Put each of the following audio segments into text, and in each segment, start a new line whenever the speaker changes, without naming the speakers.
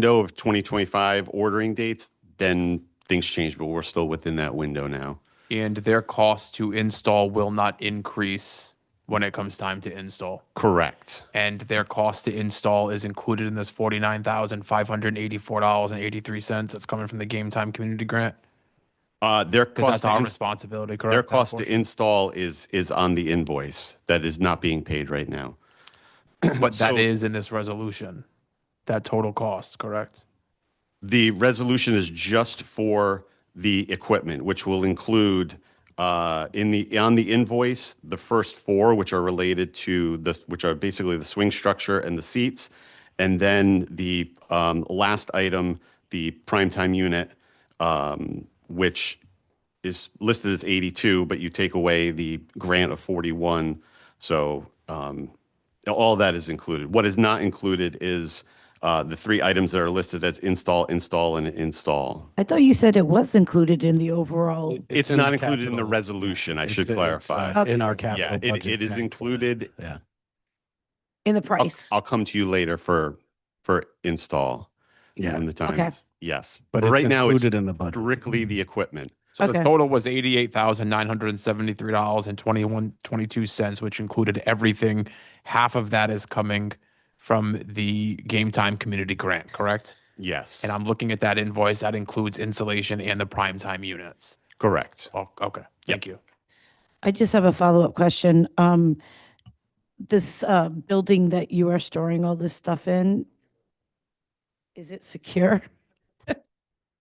window of 2025 ordering dates, then things change, but we're still within that window now.
and their cost to install will not increase when it comes time to install.
Correct.
And their cost to install is included in this forty-nine thousand five hundred eighty-four dollars and eighty-three cents that's coming from the Game Time Community Grant.
Uh, their
Because
cost,
that's
to
our
ins-
responsibility, correct?
their
That
cost to
portion?
install is, is on the invoice that is not being paid right now.
But that
so-
is in this resolution, that total cost, correct?
The resolution is just for the equipment, which will include uh, in the, on the invoice, the first four, which are related to the, which are basically the swing structure and the seats. And then the um, last item, the primetime unit, um, which is listed as 82, but you take away the grant of 41. So um, all that is included. What is not included is uh, the three items that are listed as install, install, and install.
I thought you said it was included in the overall.
It's
in
not
the
included in the
capital.
resolution, I
It's
should
in- it's,
clarify.
uh, In our
Okay.
capital
Yeah,
budget.
it, it is
tax.
included.
Yeah.
In the
I'll,
price.
I'll come to you later for, for install.
Yeah.
When the time
Okay.
is, yes.
But
But
it's
right now, it's
included in the budget. Mm-hmm.
strictly the equipment.
So the
Okay.
total was eighty-eight thousand nine hundred and seventy-three dollars and twenty-one, twenty-two cents, which included everything. Half of that is coming from the Game Time Community Grant, correct?
Yes,
And I'm looking at that invoice, that includes insulation and the prime time units.
correct.
Oh, okay, thank you.
I just have a follow-up question. Um, this, uh, building that you are storing all this stuff in, is it secure?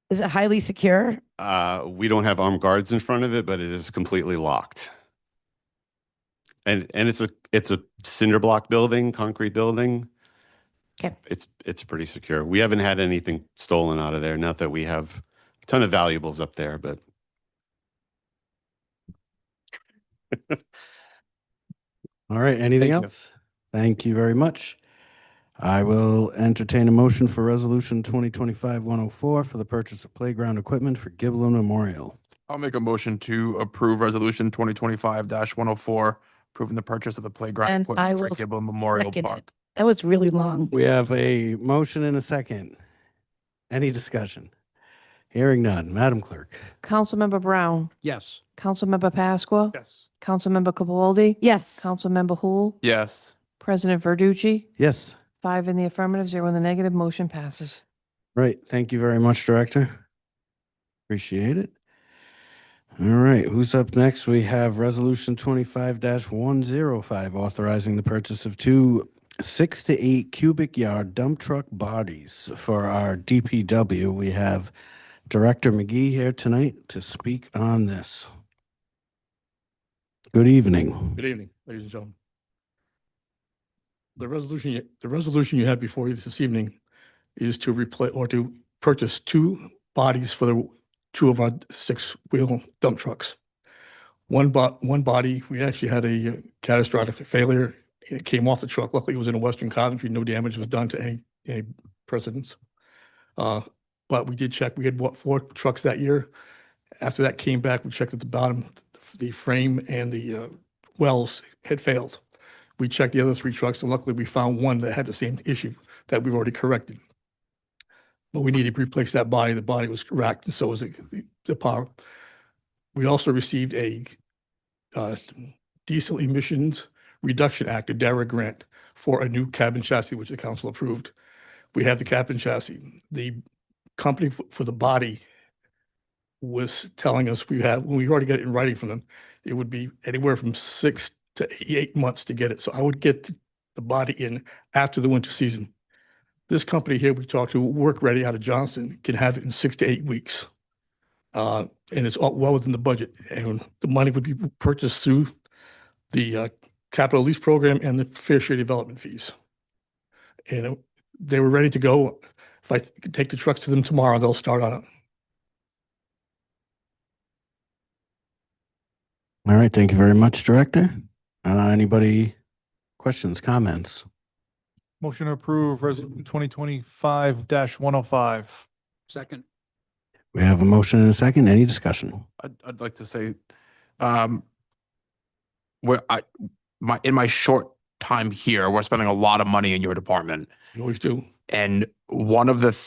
Is it highly secure?
Uh, we don't have armed guards in front of it, but it is completely locked. And, and it's a, it's a cinder block building, concrete building.
Okay.
It's, it's pretty secure. We haven't had anything stolen out of there. Not that we have a ton of valuables up there, but
All right, anything
Thank you.
else? Thank you very much. I will entertain a motion for Resolution 2025-104 for the purchase of playground equipment for Giblin Memorial.
I'll make a motion to approve resolution twenty twenty-five one oh four, approving the purchase of the playground
And I
equipment for
will
Giblin Memorial
second it.
Park.
That was really long.
We have a motion and a second. Any discussion? Hearing none. Madam Clerk?
Councilmember Brown,
Yes.
Councilmember Pasqua,
Yes.
Councilmember Capaldi,
Yes.
Councilmember Hul,
Yes.
President Verducci,
Yes.
five in the affirmative, zero in the negative, motion passes.
Right. Thank you very much, Director. Appreciate it. All right, who's up next? We have Resolution twenty-five one zero five, authorizing the purchase of two six to eight cubic yard dump truck bodies for our DPW. We have Director McGee here tonight to speak on this. Good evening.
Good evening, ladies and gentlemen. The resolution, you- the resolution you have before you this evening is to replace or to purchase two bodies for the two of our six-wheel dump trucks. One bot, one body, we actually had a uh, catastrophic failure. It came off the truck. Luckily, it was in a Western Coventry. No damage was done to any, any persons. Uh, But we did check, we had what, four trucks that year. After that came back, we checked at the bottom, the frame and the uh, wells had failed. We checked the other three trucks, and luckily we found one that had the same issue that we've already corrected. But we needed to replace that body. The body was cracked, and so was the, the- the power. We also received a uh, diesel emissions reduction act, a DARA grant, for a new cabin chassis, which the council approved. We have the cabin chassis. The company f- for the body was telling us we have, we already got it in writing from them, it would be anywhere from six to eight months to get it. So I would get th- the body in after the winter season. This company here we talked to, Work Ready out of Johnson, can have it in six to eight weeks. Uh, and it's all well within the budget and the money would be purchased through the, uh, capital lease program and the fair share development fees. And it- they were ready to go. If I could take the trucks to them tomorrow, they'll start on it.
All right, thank you very much, Director. Uh, anybody, questions, comments?
Motion to approve resolution twenty twenty-five one oh five.
Second.
We have a motion and a second. Any discussion?
I'd, I'd like to say, um, where I, my, in my short time here, we're spending a lot of money in your department.
You always do.
And one of the